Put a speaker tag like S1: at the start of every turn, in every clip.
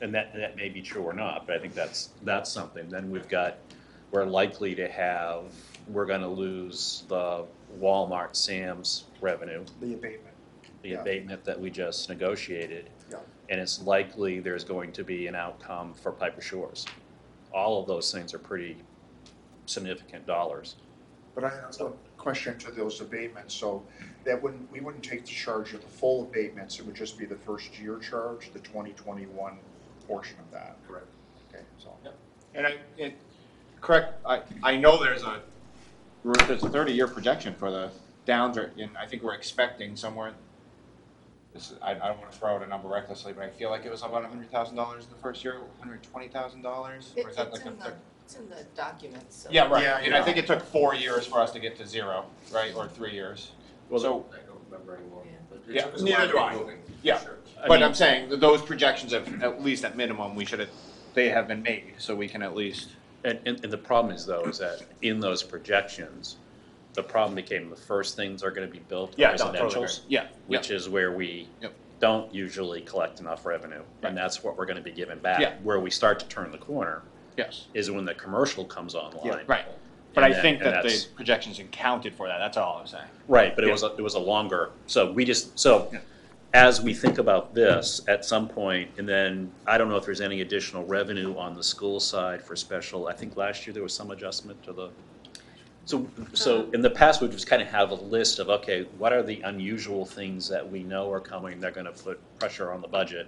S1: and that, that may be true or not, but I think that's, that's something. Then we've got, we're likely to have, we're gonna lose the Walmart Sam's revenue,
S2: the abatement.
S1: the
S2: Yeah.
S1: abatement that we just negotiated.
S2: Yeah.
S1: And it's likely there's going to be an outcome for Piper Shores. All of those things are pretty significant dollars.
S2: But I have a question to those abatements, so that wouldn't, we wouldn't take the charge of the full abatements, it would just be the first year charge, the twenty twenty-one portion of that.
S3: Correct.
S2: Okay, so,
S3: And I, it, correct, I, I know there's a, Ruth, there's a thirty-year projection for the downs, or- and I think we're expecting somewhere, this, I, I don't wanna throw out a number recklessly, but I feel like it was about hundred thousand dollars the first year, hundred twenty thousand dollars?
S4: It- It's in the, it's in the documents, so.
S3: Yeah,
S2: Yeah,
S3: right, and I
S2: yeah.
S3: think it took four years for us to get to zero, right, or three years.
S1: Well,
S3: So,
S5: I don't remember anymore,
S4: Yeah.
S5: but
S3: Yeah,
S5: it took us a
S3: neither
S5: while to
S3: do I.
S5: get moving.
S3: Yeah.
S5: Sure.
S1: I
S3: but
S1: mean-
S3: I'm saying that those projections have, at least at minimum, we should have, they have been made, so we can at least.
S1: And, and, and the problem is though, is that in those projections, the problem became the first things are gonna be built are residentials,
S3: Yeah, yeah.
S1: which is where we
S3: Yep.
S1: don't usually collect enough revenue,
S3: Right.
S1: and that's what we're gonna be giving back.
S3: Yeah.
S1: Where we start to turn the corner
S3: Yes,
S1: is when the commercial comes online.
S3: right.
S1: And
S3: But I
S1: that-
S3: think
S1: and
S3: that the
S1: that's-
S3: projections accounted for that, that's all I'm saying.
S1: Right, but it
S3: Yeah.
S1: was, a- it was a longer, so we just, so
S3: Yeah.
S1: as we think about this at some point, and then I don't know if there's any additional revenue on the school side for special, I think last year there was some adjustment to the, so, so in the past, we just kind of have a list of, okay, what are the unusual things that we know are coming, they're gonna put pressure on the budget?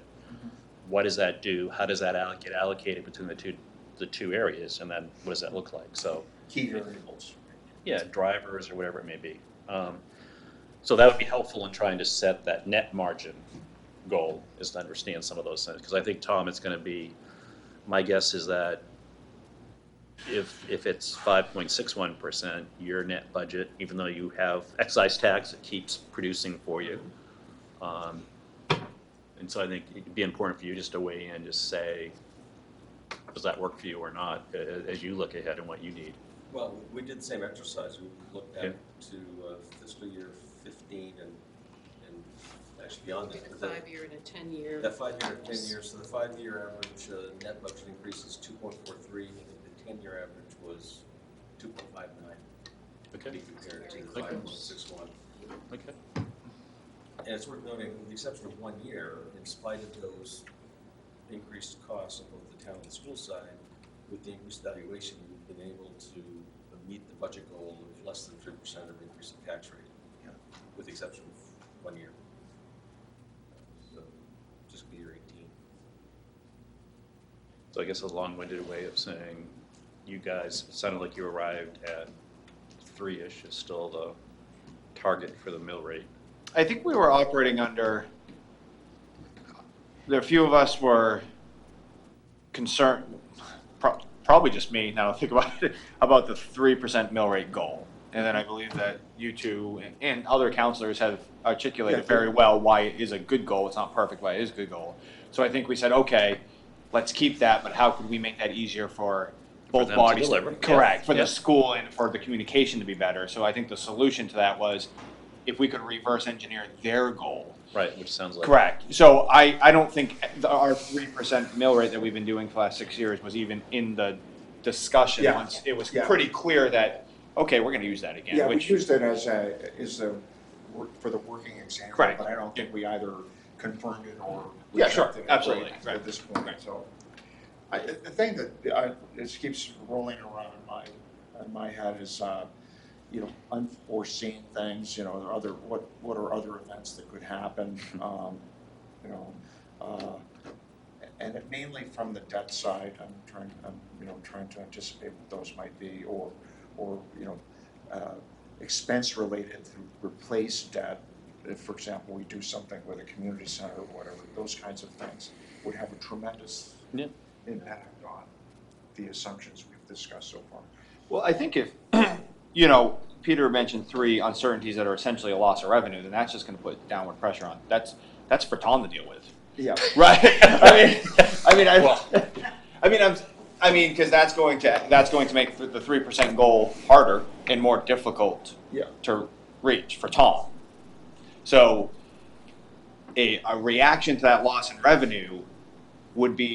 S1: What does that do? How does that allocate, allocated between the two, the two areas, and then what does that look like? So
S2: key variables.
S1: yeah, drivers or whatever it may be. Um, so that would be helpful in trying to set that net margin goal is to understand some of those things. Because I think Tom, it's going to be my guess is that if if it's five point six one percent, your net budget, even though you have excise tax, it keeps producing for you. Um, and so I think it'd be important for you just to weigh in, just say, does that work for you or not, a- a- as you look ahead and what you need.
S5: Well, we did the same exercise, we looked
S1: Yeah.
S5: at to uh, fiscal year fifteen and, and actually beyond
S4: Take
S5: that.
S4: a
S5: but that-
S4: five-year and a ten-year.
S5: That five-year, ten years, so the five-year average uh, net budget increase is two point four three, and the ten-year average was two point five nine. To be compared to
S1: Okay.
S5: five point six one.
S1: okay.
S5: And it's worth noting, with the exception of one year, in spite of those increased costs on both the town and the school side, with the increased valuation, we've been able to meet the budget goal of less than three percent of increase in tax rate.
S2: Yeah.
S5: With the exception of one year. So, fiscal year eighteen.
S1: So I guess a long-winded way of saying, you guys, it sounded like you arrived at three-ish is still the target for the mill rate.
S3: I think we were operating under, there are a few of us were concerned, pro- probably just me, now that I think about it, about the three percent mill rate goal. And then I believe that you two and other counselors have articulated
S2: Yeah.
S3: very well why it is a good goal, it's not perfect, but it is a good goal. So I think we said, okay, let's keep that, but how could we make that easier for both
S1: them to
S3: bodies?
S1: deliver, yeah.
S3: Correct, for
S1: Yeah.
S3: the school and for the communication to be better. So I think the solution to that was if we could reverse engineer their goal.
S1: Right, which sounds like.
S3: Correct. So I, I don't think the- our three percent mill rate that we've been doing for the last six years was even in the discussion.
S2: Yeah.
S3: Once it was
S2: Yeah.
S3: pretty clear that, okay, we're gonna use that again.
S2: Yeah, we
S3: which-
S2: used it as a, as a, wor- for the working example,
S3: Correct.
S2: but I don't think we either confirmed it or
S3: Yeah, sure,
S2: rejected it
S3: absolutely,
S2: right
S3: right.
S2: at this point,
S3: Right.
S2: so. I, the thing that I, this keeps rolling around in my, in my head is, uh, you know, unforeseen things, you know, there are other, what, what are other events that could happen?
S3: Hmm.
S2: Um, you know, uh, and it mainly from the debt side, I'm trying, I'm, you know, trying to anticipate what those might be, or, or, you know, uh, expense related to replace debt. If, for example, we do something with a community center or whatever, those kinds of things would have a tremendous
S1: Yeah.
S2: impact on the assumptions we've discussed so far.
S3: Well, I think if, you know, Peter mentioned three uncertainties that are essentially a loss of revenue, then that's just gonna put downward pressure on. That's, that's for Tom to deal with.
S2: Yeah.
S3: Right. I mean, I mean, I, I mean, I'm, I mean, because that's going to that's going to make the three percent goal harder and more difficult
S2: Yeah.
S3: to reach for Tom. So, a, a reaction to that loss in revenue would be